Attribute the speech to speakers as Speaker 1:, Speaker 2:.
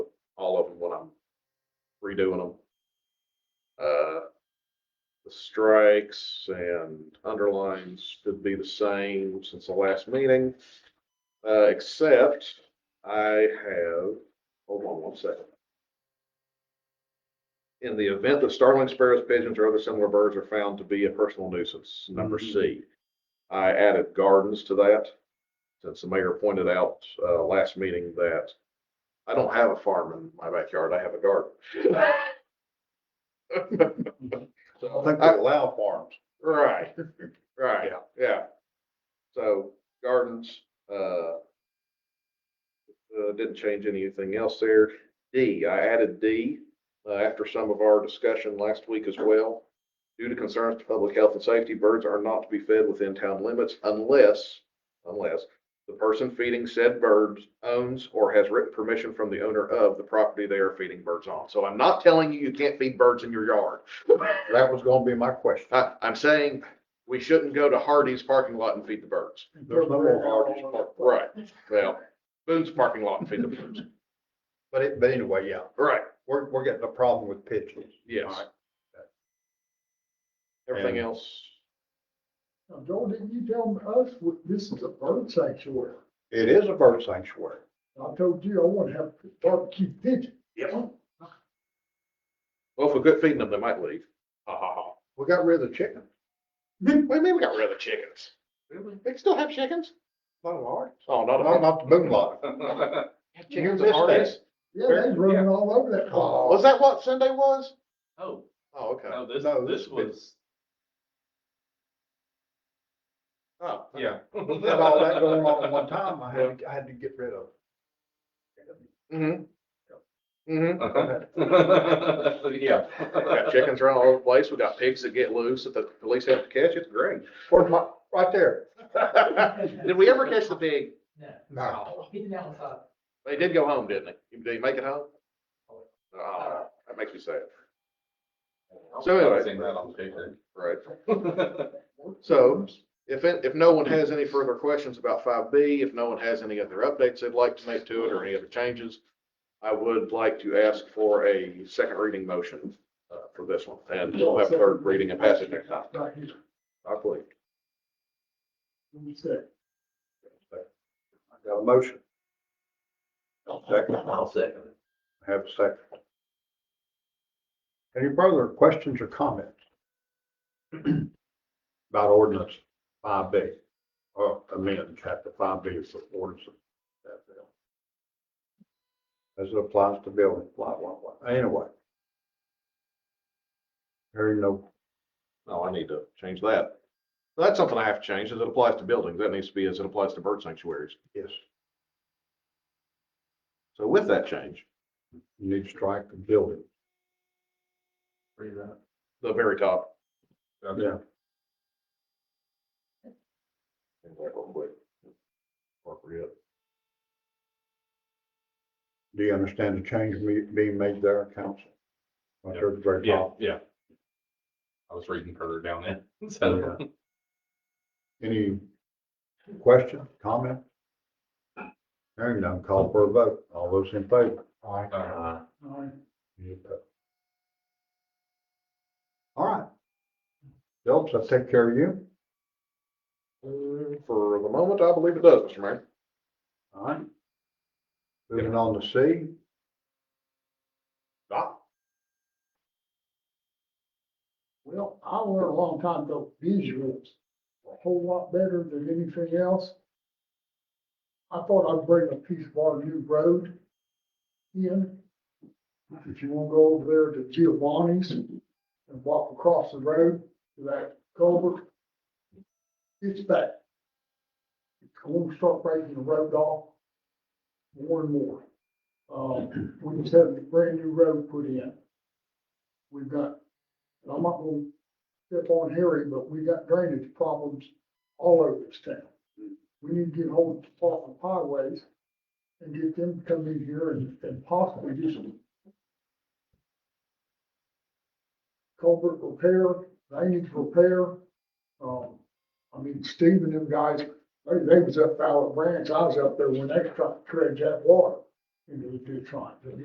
Speaker 1: redoing them. Uh, the strikes and underlines should be the same since the last meeting. Uh, except I have, hold on one second. In the event that starlings, sparrows, pigeons, or other similar birds are found to be a personal nuisance, number C. I added gardens to that, since the mayor pointed out, uh, last meeting that I don't have a farm in my backyard, I have a garden. So,
Speaker 2: I think
Speaker 1: I-
Speaker 2: they allow farms.
Speaker 1: Right, right, yeah. So gardens, uh, uh, didn't change anything else there. D, I added D, uh, after some of our discussion last week as well. Due to concerns to public health and safety, birds are not to be fed within town limits unless, unless the person feeding said birds owns or has written permission from the owner of the property they are feeding birds on. So I'm not telling you you can't feed birds in your yard.
Speaker 2: That was gonna be my question.
Speaker 1: I, I'm saying we shouldn't go to Hardy's parking lot and feed the birds.
Speaker 2: There's no more Hardee's Park.
Speaker 1: Right. Well, Boone's parking lot and feed the birds.
Speaker 2: But it, but anyway, yeah,
Speaker 1: Right,
Speaker 2: we're, we're getting a problem with pigeons.
Speaker 1: yes. Everything else,
Speaker 3: Now, Joel, didn't you tell us what- this is a bird sanctuary?
Speaker 2: It is a bird sanctuary.
Speaker 3: I told you I want to have barbecue pigeon.
Speaker 1: well, if we quit feeding them, they might leave. Ha ha ha.
Speaker 2: We got rid of the chicken.
Speaker 1: What do you mean we got rid of the chickens? They still have chickens?
Speaker 2: Not a lot.
Speaker 1: Oh, not
Speaker 2: Not,
Speaker 1: at
Speaker 2: not the moonlight.
Speaker 4: Oh,
Speaker 1: Chickens
Speaker 2: You missed
Speaker 1: at Hardee's?
Speaker 3: Yeah, they's running all over that
Speaker 2: Oh.
Speaker 3: car.
Speaker 1: Was that what Sunday was?
Speaker 4: Oh,
Speaker 1: Oh, okay.
Speaker 4: no, this,
Speaker 2: No,
Speaker 4: this
Speaker 2: this bit-
Speaker 4: was,
Speaker 1: Oh,
Speaker 4: yeah.
Speaker 2: With all that going on at one time, I had, I had to get rid of.
Speaker 1: Mm-hmm. Mm-hmm.
Speaker 4: Yeah.
Speaker 1: We got chickens around all over the place. We got pigs that get loose that the police have to catch. It's great.
Speaker 2: Where's my, right there.
Speaker 1: Did we ever catch the pig?
Speaker 2: No.
Speaker 1: They did go home, didn't they? Did they make it home? Oh, that makes me sad, So anyway.
Speaker 4: Seeing that on paper.
Speaker 1: right? So if, it- if no one has any further questions about five B, if no one has any other updates they'd like to make to it or any other changes, I would like to ask for a second reading motion uh, for this one and we'll have third reading and passage next time.
Speaker 3: Right here.
Speaker 1: I believe.
Speaker 3: Let me see.
Speaker 2: Got a motion. Second.
Speaker 4: I'll second it.
Speaker 2: Have a second. Any further questions or comments? About ordinance five B, or amend chapter five B for ordinance. of that bill. As it applies to building, blah, blah, blah, anyway. Very no,
Speaker 1: No, I need to change that. That's something I have to change as it applies to buildings. That needs to be as it applies to bird sanctuaries.
Speaker 2: yes,
Speaker 1: So with that change,
Speaker 2: you need to strike the building.
Speaker 4: Read that.
Speaker 1: the very top,
Speaker 4: Okay.
Speaker 2: Yeah.
Speaker 1: Things like real quick. Appropriate.
Speaker 2: Do you understand the change me- being made there, council? Right there at the very
Speaker 4: Yeah,
Speaker 2: top.
Speaker 4: yeah. I was reading further down there. So,
Speaker 2: Any question, comment? Hearing none, call for a vote. All those in favor?
Speaker 4: uh,
Speaker 3: All right.
Speaker 2: Any opposed? All right. Phelps, I'll take care of you.
Speaker 1: Mm, For the moment, I believe it does, Mr. Mayor.
Speaker 2: All right. Moving on to C.
Speaker 1: Doc?
Speaker 3: Well, I learned a long time ago, visuals are a whole lot better than anything else. I thought I'd bring a piece of our new road in. If you wanna go over there to Giovanni's and walk across the road to that culvert, it's bad. It's going to start breaking the road off more and more. Um, we just had a brand new road put in. We've got and I'm not gonna step on Harry, but we got drainage problems all over this town. We need to get hold of the Department of Highways and get them to come in here and, and possibly do some culvert repair, drainage repair. Um, I mean, Steve and them guys, they, they was up Fowler Branch, I was up there when they tried to dredge that water into the ditch line.